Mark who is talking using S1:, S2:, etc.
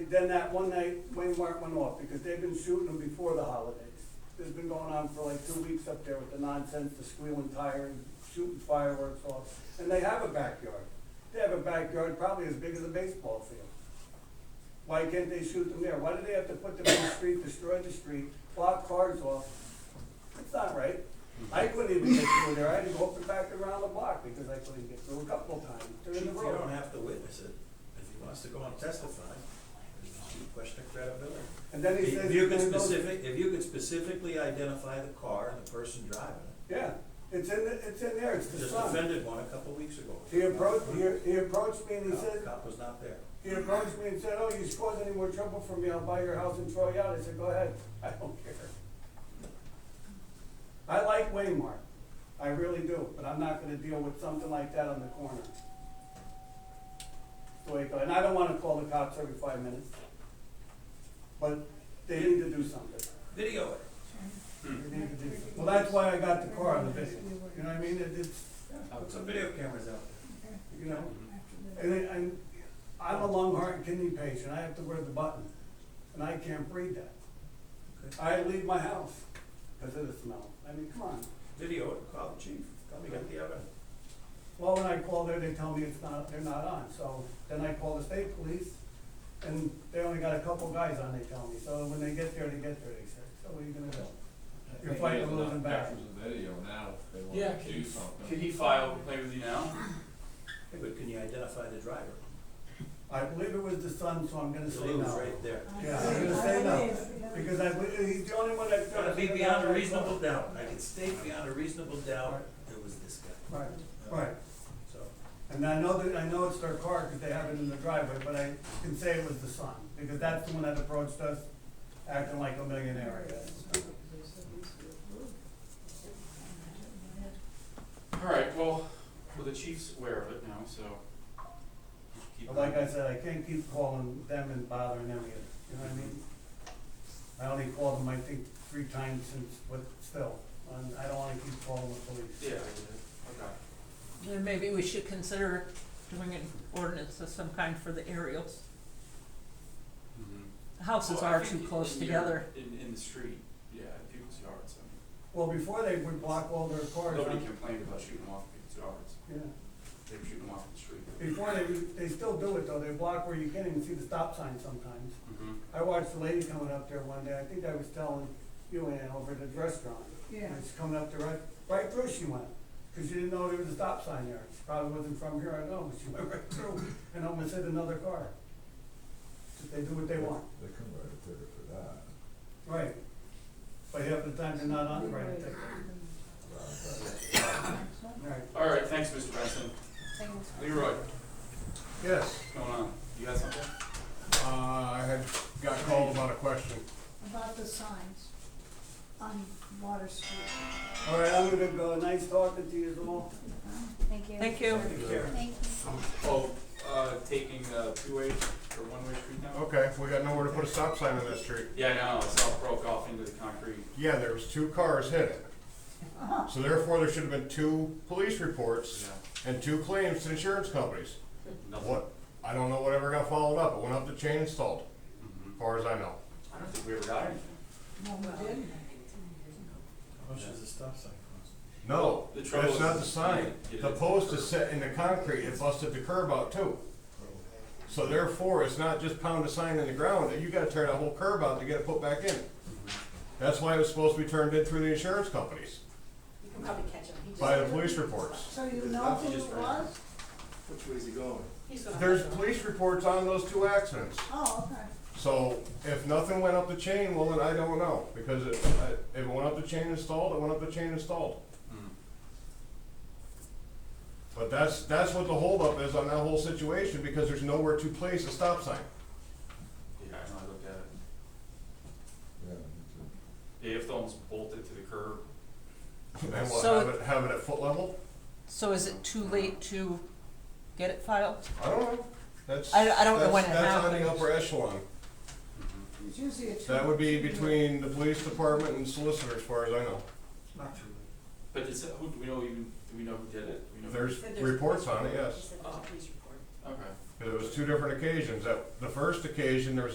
S1: then that one night, Wayne Mark went off, because they've been shooting them before the holidays. This has been going on for like two weeks up there with the nonsense, the squealing tire, and shooting fireworks off, and they have a backyard. They have a backyard probably as big as a baseball field. Why can't they shoot them there? Why do they have to put them in the street, destroy the street, block cars off? It's not right. I couldn't even get through there, I had to go up and back around the block because I couldn't get through a couple of times
S2: Chief,
S1: during the
S2: you
S1: road.
S2: don't have to witness it. If he wants to go and testify, it's a question of credibility.
S1: And then he says.
S2: If you
S1: he's
S2: could
S1: gonna go-
S2: specific, if you could specifically identify the car and the person driving it,
S1: Yeah, it's in, the- it's in there, it's the
S2: just
S1: sun.
S2: offended one a couple of weeks ago.
S1: He approached, he, he approached me and he
S2: No,
S1: said,
S2: Cop was not there.
S1: he approached me and said, oh, you cause any more trouble for me, I'll buy your house and throw you out. I said, go ahead, I don't care. I like Waymark, I really do, but I'm not gonna deal with something like that on the corner. So I go, and I don't wanna call the cops every five minutes, but they need to do something.
S2: Video it.
S1: They need to do something. Well, that's why I got the car on the video, you know what I mean? It- It's,
S2: Put some video cameras out there.
S1: you know? And, I- and I'm a lung, heart, and kidney patient, I have to wear the button, and I can't breathe that. I leave my house because of the smell, I mean, come on.
S2: Video it, call the chief, tell me you got the evidence.
S1: Well, when I call there, they tell me it's not, they're not on, so then I call the state police, and they only got a couple guys on, they tell me, so when they get there, they get there, they say, so what are you gonna do? You're fighting a losing battle.
S3: Pictures and video now, if they
S4: Yeah,
S3: want to do
S4: can,
S3: something.
S4: can he file a complaint with you now?
S2: Hey, but can you identify the driver?
S1: I believe it was the son, so I'm gonna
S2: The
S1: say
S2: lead
S1: no.
S2: was right there.
S1: Yeah, I'm gonna say no, because I, believe- he's the only one that's.
S2: It's gotta be beyond a reasonable doubt. I can state beyond a reasonable doubt, it was this guy.
S1: Right, right.
S2: So,
S1: And I know that, I know it's their car because they have it in the driveway, but I can say it was the son, because that's the one that approached us acting like a millionaire, I guess.
S4: Alright, well, well, the chief's aware of it now, so. keep
S1: But like I said, I can't keep calling them and bothering them either, you know what I mean? I only called them, I think, three times since, but still, and I don't wanna keep calling the police.
S4: Yeah, I did,
S5: Then maybe we should consider doing an ordinance of some kind for the aerials.
S4: okay.
S5: Houses
S4: Well, I
S5: are
S4: think
S5: too
S4: in-
S5: close
S4: in your-
S5: together.
S4: In, in the street, yeah, in people's yards, I
S1: Well, before they would block all their
S4: mean,
S1: cars,
S4: nobody
S1: on-
S4: complained about shooting them off in people's yards,
S1: yeah.
S4: they were shooting them off in the street.
S1: Before they, they still do it though, they block where you can't even see the stop sign sometimes.
S4: Mm-hmm.
S1: I watched a lady coming up there one day, I think I was telling you, Ann, over at the restaurant.
S6: Yeah.
S1: And She's coming up there, right, right through she went, because she didn't know there was a stop sign there. She probably wasn't from here, I don't know, but she went right through and almost hit another car. Just They do what they want,
S7: They couldn't write a ticket for that.
S1: right. But half the time they're not on the right ticket. Right,
S4: Alright, thanks, Mr. Benson. Leroy,
S3: Yes,
S4: what's going on? You got something?
S3: uh, I had got called about a question.
S6: About the signs on Water Street.
S1: all right, I'm gonna go, nice talking to you all.
S6: Thank you.
S5: Thank you.
S1: Take care.
S6: Thank you.
S4: Oh, uh, taking, uh, two-way or one-way street now?
S3: Okay, we got nowhere to put a stop sign on that street.
S4: Yeah, I know, it's all broke off into the concrete.
S3: Yeah, there was two cars hit it. So therefore, there should have been two police reports and two claims to insurance companies.
S4: Nothing.
S3: What, I don't know whatever got followed up, it went up the chain installed,
S4: Mhm.
S3: as far as I know.
S4: I don't think we ever got anything.
S2: how much does the stop sign cost?
S3: No,
S4: The trouble
S3: that's not
S4: is-
S3: the sign.
S4: Yeah.
S3: The post is set in the concrete, it busted the curb out too. So therefore, it's not just pound a sign in the ground, you gotta tear that whole curb out to get it put back in. That's why it was supposed to be turned in through the insurance companies,
S8: You can probably catch him. He just-
S3: by the police reports.
S6: So you know who it was?
S2: Which way's he going?
S8: He's gonna.
S3: There's police reports on those two accidents.
S6: Oh, okay.
S3: So if nothing went up the chain, well, then I don't know, because it, I- if it went up the chain installed, it went up the chain installed.
S4: Mm.
S3: But that's, that's what the holdup is on that whole situation, because there's nowhere to place a stop sign.
S4: Yeah, I know, I looked at it.
S7: Yeah, me too.
S4: They have to almost bolt it to the curb.
S3: And what,
S5: So-
S3: have it, have it at foot level?
S5: So is it too late to get it filed?
S3: I don't know. That's.
S5: I- I don't know
S3: that's-
S5: when it
S3: That's on the
S5: happened.
S3: upper echelon.
S6: It's usually a.
S3: That would be between the police department and solicitor, as far as I know.
S2: Not too late.
S4: But is it, who, do we know even, do we know who did it? Do we know?
S3: There's
S8: But there's-
S3: reports on it,
S8: He
S3: yes.
S8: said there's a police report.
S4: Okay.
S3: It was two different occasions. That, the first occasion, there was